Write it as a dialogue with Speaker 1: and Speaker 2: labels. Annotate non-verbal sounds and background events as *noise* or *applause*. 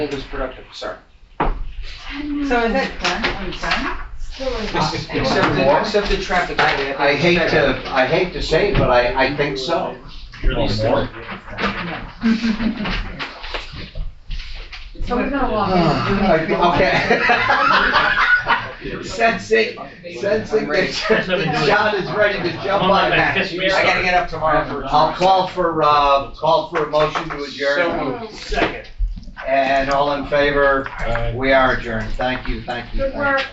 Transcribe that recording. Speaker 1: It was productive, sorry.
Speaker 2: So is it done? Are we done?
Speaker 1: Except the, except the traffic. study,
Speaker 3: I
Speaker 1: think
Speaker 3: hate
Speaker 1: it's
Speaker 3: to,
Speaker 1: better.
Speaker 3: I hate to say, it, but I, I think
Speaker 2: So
Speaker 3: so.
Speaker 2: we're gonna walk
Speaker 3: I think- *laughs* Okay. *laughs* Sensing, sensing
Speaker 1: I'm ready.
Speaker 3: that John is ready to jump on that.
Speaker 1: I gotta get up tomorrow for.
Speaker 3: I'll call for, uh, call for a motion to adjourn,
Speaker 4: Second.
Speaker 3: and all in favor, we are adjourned, thank you, thank you, thank you.